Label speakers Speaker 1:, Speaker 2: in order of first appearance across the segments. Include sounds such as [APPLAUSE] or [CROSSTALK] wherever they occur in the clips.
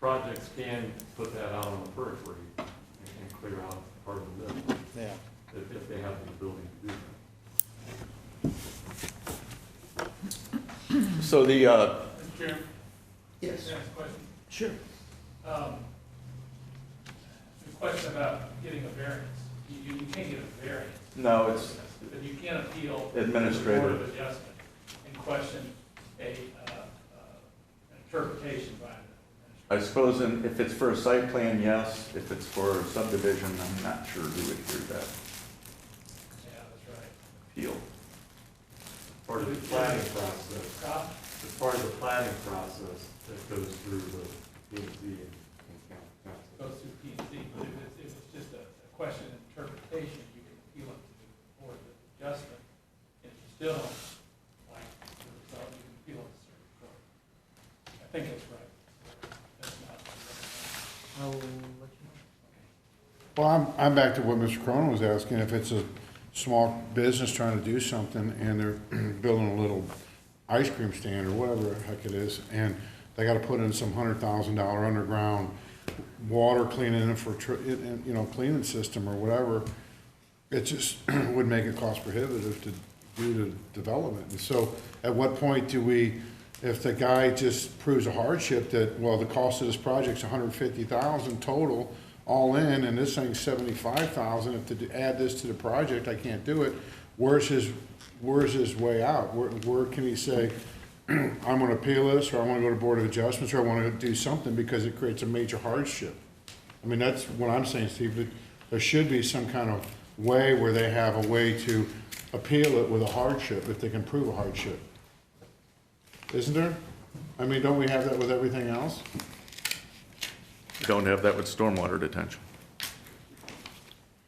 Speaker 1: projects can put that out on the periphery and and clear out part of the middle,
Speaker 2: yeah.
Speaker 1: if, if they have the ability to do that.
Speaker 2: So the, uh,
Speaker 3: Mr. Chairman? Yes. Can I ask a question?
Speaker 2: sure,
Speaker 3: Um, The question about getting a variance. You, you can't get a variance,
Speaker 2: no, it's
Speaker 3: but you can appeal. to the Board
Speaker 2: administrative.
Speaker 3: of Adjustment and question a, uh, uh, interpretation by the
Speaker 2: I suppose in- if it's for a site plan, yes, if it's for subdivision, I'm not sure who would hear that
Speaker 3: administrator. Yeah, that's right.
Speaker 2: appeal.
Speaker 1: Part of the planning process.
Speaker 3: Scott?
Speaker 1: It's part of the planning process that goes through the P and Z and and coun- council.
Speaker 3: goes through P and Z, but if it's, if it's just a a question of interpretation, you can appeal it to the Board of Adjustment. And if you still don't like the result, you can appeal it to the Circuit Court. I think that's right. That's not.
Speaker 4: Well, I'm, I'm back to what Mr. Cronin was asking, if it's a small business trying to do something and they're [CLEARS THROAT] building a little ice cream stand or whatever the heck it is, and they gotta put in some hundred thousand dollar underground water cleaning and for, tr- it- and, you know, cleaning system or whatever, it just [CLEARS THROAT] would make it cost prohibitive to do the development. And so at what point do we, if the guy just proves a hardship that, well, the cost of this project's a hundred and fifty thousand total, all in, and this thing's seventy-five thousand, if to do- add this to the project, I can't do it, where's his, where's his way out? Where, where can he say, I'm gonna appeal this, or I wanna go to Board of Adjustments, or I wanna do something because it creates a major hardship? I mean, that's what I'm saying, Steve, that there should be some kind of way where they have a way to appeal it with a hardship, if they can prove a hardship. Isn't there? I mean, don't we have that with everything else?
Speaker 2: We Don't have that with stormwater detention.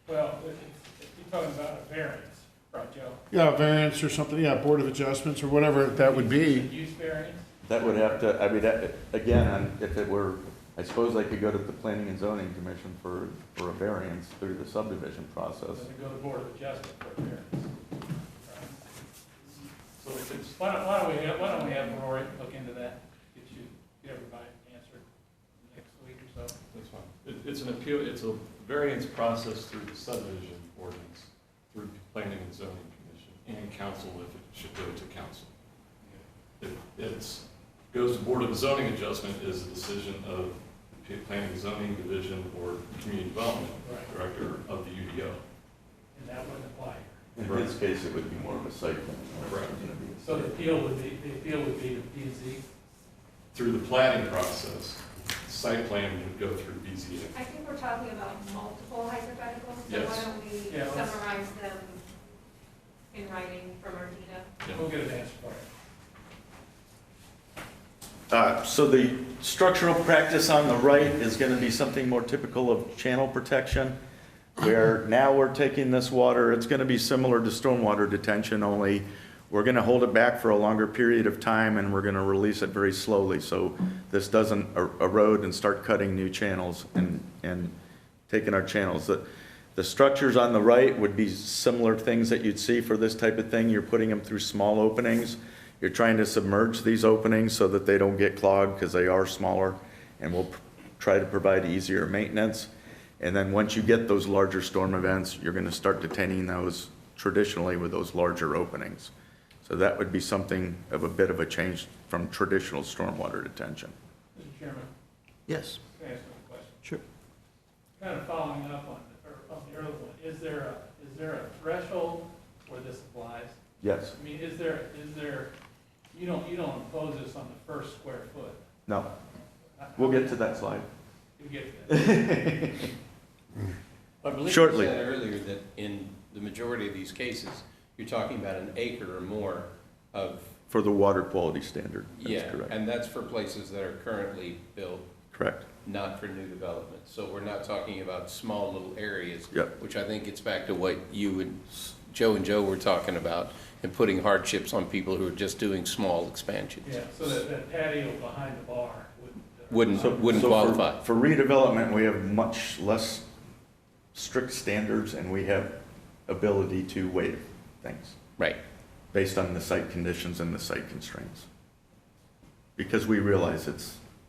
Speaker 3: Well, if, it's- if you're talking about a variance, right, Joe?
Speaker 4: Yeah, variance or something, yeah, Board of Adjustments or whatever that would
Speaker 3: A
Speaker 4: be.
Speaker 3: use variance?
Speaker 2: That would have to, I mean, that, again, I'm- if it were, I suppose I could go to the planning and zoning commission for, for a variance through the subdivision process.
Speaker 3: Does it go to Board of Adjustment for a variance? Right.
Speaker 1: So if it's,
Speaker 3: Why don't, why don't we have, why don't we have Rory look into that, get you, get everybody answered next week or so?
Speaker 1: that's fine. It, it's an appeal, it's a variance process through the subdivision ordinance, through planning and zoning commission, and council if it should go to council. It, it's, goes to board of zoning adjustment is a decision of P- planning and zoning division or community development
Speaker 3: Right.
Speaker 1: director of the UDO.
Speaker 3: And that wouldn't apply here.
Speaker 2: In his case, it would be more of a site plan. or it's gonna be a
Speaker 3: So the
Speaker 2: site.
Speaker 3: appeal would be, the appeal would be to P and Z?
Speaker 1: Through the planning process, site plan would go through BZA.
Speaker 5: I think we're talking about multiple hypotheticals, so
Speaker 1: Yes.
Speaker 5: why don't we
Speaker 3: Yeah, let's-
Speaker 5: summarize them in writing from Ardita?
Speaker 1: Yeah.
Speaker 3: We'll get an answer for it.
Speaker 2: Uh, So the structural practice on the right is going to be something more typical of channel protection, where now we're taking this water, it's going to be similar to stormwater detention, only we're going to hold it back for a longer period of time, and we're going to release it very slowly, so this doesn't er- erode and start cutting new channels and, and taking our channels. The- The structures on the right would be similar things that you'd see for this type of thing. You're putting them through small openings. You're trying to submerge these openings so that they don't get clogged because they are smaller and we will try to provide easier maintenance. And then once you get those larger storm events, you're going to start detaining those traditionally with those larger openings. So that would be something of a bit of a change from traditional stormwater detention.
Speaker 3: Mr. Chairman,
Speaker 2: Yes.
Speaker 3: can I ask you a question?
Speaker 2: Sure.
Speaker 3: Kind of following up on, the- or on the earlier one, is there a, is there a threshold where this applies?
Speaker 2: Yes.
Speaker 3: I mean, is there, is there, you don't, you don't impose this on the first square foot?
Speaker 2: No. We'll get to that slide.
Speaker 3: We'll get to that.
Speaker 6: I believe you
Speaker 2: Shortly.
Speaker 6: said earlier that in the majority of these cases, you're talking about an acre or more of,
Speaker 2: For the water quality standard. That's
Speaker 6: yeah,
Speaker 2: correct.
Speaker 6: and that's for places that are currently built,
Speaker 2: Correct.
Speaker 6: not for new development. So we're not talking about small little areas.
Speaker 2: Yep.
Speaker 6: Which I think gets back to what you and, S- Joe and Joe were talking about, and putting hardships on people who are just doing small expansions.
Speaker 3: Yeah, so that, that patio behind the bar wouldn't. uh,
Speaker 6: Wouldn't-
Speaker 2: So-
Speaker 6: wouldn't
Speaker 2: so for-
Speaker 6: qualify.
Speaker 2: For redevelopment, we have much less strict standards and we have ability to waive things
Speaker 6: Right,
Speaker 2: based on the site conditions and the site constraints. Because we realize it's